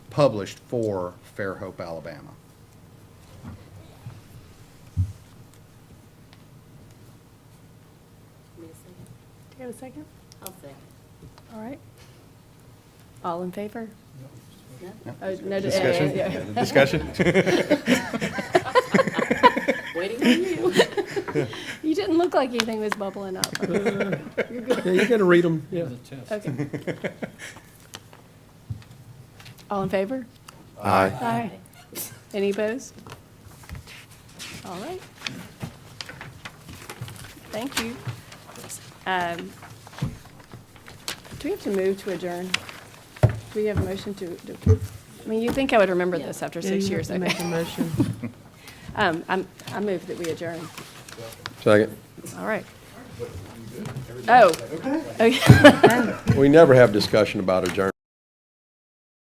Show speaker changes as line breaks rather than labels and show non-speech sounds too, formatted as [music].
published for Fairhope, Alabama.
Give me a second.
Do you have a second?
I'll second.
All right. All in favor?
Yeah.
Oh, no, d-
Discussion?
yeah,
Yeah,
yeah.
[laughs] Discussion?
No? [laughs] Waiting on you.
[laughs] You didn't look like anything was
[laughs]
bubbling up.
[laughs] Yeah, you gotta read them, yeah.
Okay. All in favor?
Aye.
Aye. Any opposed? All right. Thank you. Um, Do we have to move to adjourn? Do we have a motion to, to- I mean, you'd think I would remember this after six years.
Yeah, you have
okay.
to make a motion.
[laughs] Um, I'm- I move that we adjourn.
Second.
All right. Oh. Okay.
We never have discussion about adjournment.